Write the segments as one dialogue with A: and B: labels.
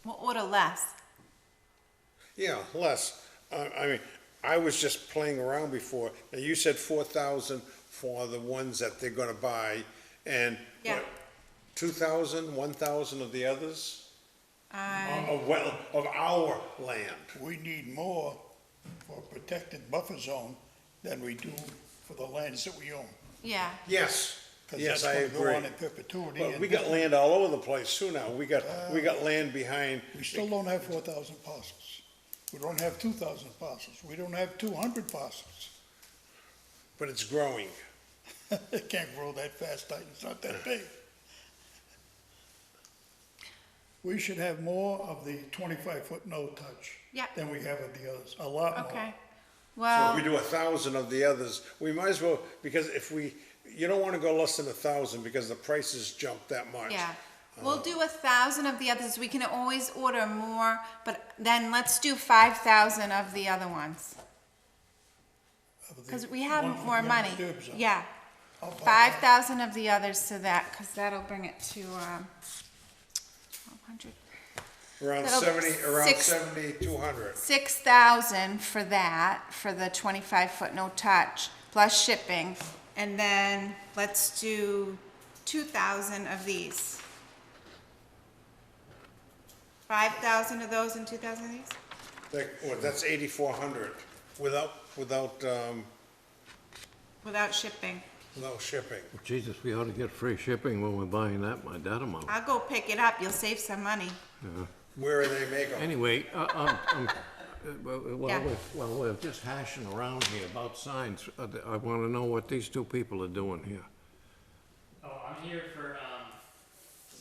A: equal to less.
B: Yeah, less. I, I mean, I was just playing around before. Now, you said four thousand for the ones that they're gonna buy, and
A: Yeah.
B: what, two thousand, one thousand of the others?
A: I,
B: Of, of well, of our land.
C: We need more for protected buffer zone than we do for the lands that we own.
A: yeah,
B: Yes, yes, I
C: Because that's gonna go on
B: agree.
C: in perpetuity.
B: But
C: and
B: we got land all over the place too now. We got,
C: Uh.
B: we got land behind.
C: We still don't have four thousand parcels. We don't have two thousand parcels. We don't have two hundred parcels.
B: But it's growing.
C: It can't grow that fast, like, it's not that big. We should have more of the twenty-five foot no touch.
A: Yeah.
C: Than we have of the others, a lot more.
A: okay.
B: Oh. So
A: Well,
B: if we do a thousand of the others, we might as well, because if we, you don't wanna go less than a thousand because the prices jump that much.
A: yeah.
B: uh,
A: We'll do a thousand of the others. We can always order more, but then let's do five thousand of the other ones.
C: of the
A: Cause we have
C: ones that
A: more
C: have
A: money.
C: disturbed zone.
A: Yeah.
C: I'll buy
A: Five
C: that.
A: thousand of the others to that, cause that'll bring it to, um, twelve hundred.
B: Around
A: That'll be
B: seventy, around
A: six-
B: seventy, two hundred.
A: Six thousand for that, for the twenty-five foot no touch, plus shipping, and then let's do two thousand of these. Five thousand of those and two thousand of these?
B: That, well, that's eighty-four hundred without, without, um,
A: Without shipping.
B: without shipping.
D: Jesus, we ought to get free shipping when we're buying that, my dad amount.
A: I'll go pick it up, you'll save some money.
B: Where do they make them?
D: Anyway, uh, um, um, uh, well,
A: Yeah.
D: well, we're, well, we're just hashing around here about signs. Uh, th- I wanna know what these two people are doing here.
E: Oh, I'm here for, um,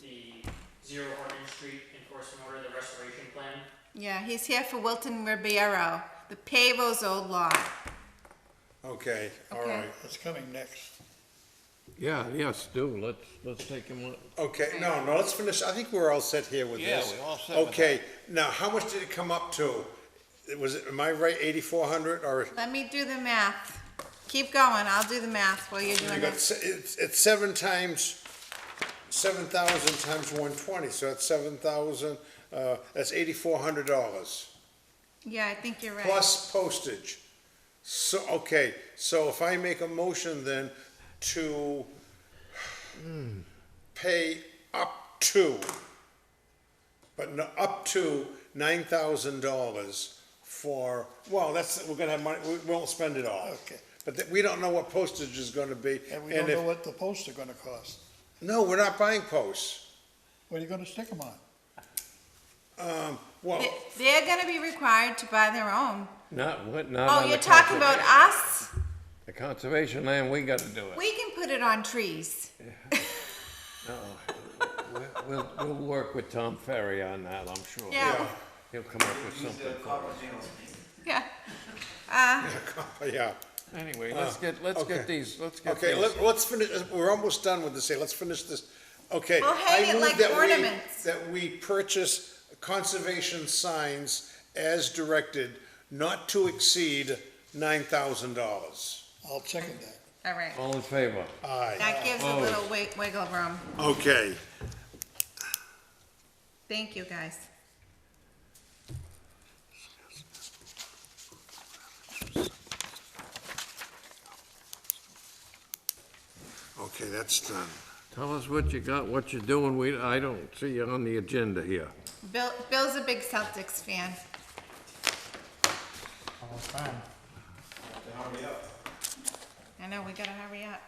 E: the Zero Orange Street enforcement order, the restoration plan.
A: Yeah, he's here for Wilton Ribeiro, the Pavo's old law.
B: Okay, all
A: Okay.
B: right.
C: It's coming next.
D: Yeah, yes, do, let's, let's take him, on-
B: Okay, no, no, let's finish. I think we're all set here with
D: Yeah,
B: this.
D: we're all set with
B: Okay, now, how much did it come up to? It Was, it- am I right, eighty-four hundred or?
A: Let me do the math. Keep going, I'll do the math while you're
B: You
A: doing
B: got,
A: it.
B: se- it's, it's seven times, seven thousand times one twenty, so that's seven thousand, uh, that's eighty-four hundred dollars.
A: Yeah, I think you're right.
B: Plus postage. So, okay, so if I make a motion then to pay up to, but no, up to nine thousand dollars for, well, that's, we're gonna have money, we won't spend it all.
C: Okay.
B: But th- we don't know what postage is gonna be.
C: And we don't
B: if-
C: know what the posts are gonna cost.
B: No, we're not buying posts.
C: What are you gonna stick them on?
B: Um, Well,
A: They- They're gonna be required to buy their own.
D: not, what, not on
A: Oh,
D: the
A: you're talking about
D: conservation.
A: us?
D: The conservation land, we gotta do it.
A: We can put it on trees.
D: We'll- We'll, we'll work with Tom Ferry on that, I'm sure.
A: Yeah,
D: He'll come up with something for us.
A: yeah. Uh,
B: yeah.
D: Anyway, let's get, let's
B: Uh, okay.
D: get these, let's get these.
B: Okay, let, let's finish, we're almost done with this, here, let's finish this, okay.
A: We'll hang
B: I
A: it
B: move
A: like
B: that we-
A: ornaments.
B: That we purchase conservation signs as directed, not to exceed nine thousand dollars.
C: I'll second that.
A: All right.
D: All in favor?
B: Aye.
A: That gives a little wi- wiggle room.
B: Okay,
A: Thank you, guys.
B: okay, that's done.
D: Tell us what you got, what you're doing, we, I don't see you on the agenda here.
A: Bill, Bill's a big Celtics fan. I know, we gotta hurry up.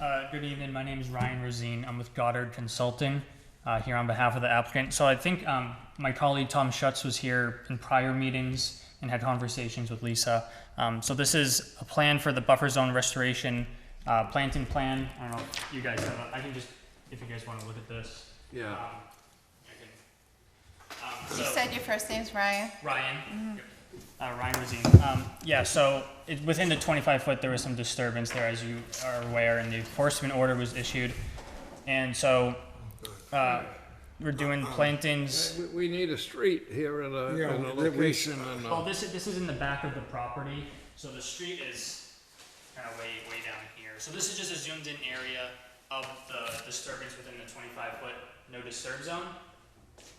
E: Uh, good evening, my name is Ryan Rosine, I'm with Goddard Consulting, uh, here on behalf of the applicant. So I think, um, my colleague Tom Schutz was here in prior meetings and had conversations with Lisa. Um, so this is a plan for the buffer zone restoration, uh, planting plan, I don't know, if you guys have, a- I can just, if you guys wanna look at this.
D: Yeah.
E: um, I can- um,
A: You
E: so-
A: said your first name's Ryan.
E: Ryan. Uh, Ryan Rosine. Um, yeah, so it, within the 25 foot, there was some disturbance there, as you are aware, and the enforcement order was issued. And so uh, we're doing plantings.
D: We, we need a street here and a,
B: Yeah,
D: and a
B: we- we-
D: location and
E: Well,
D: a.
E: Oh, this is, this is in the back of the property, so the street is kind of way, way down here. So this is just a zoomed in area of the disturbance within the 25 foot no disturb zone.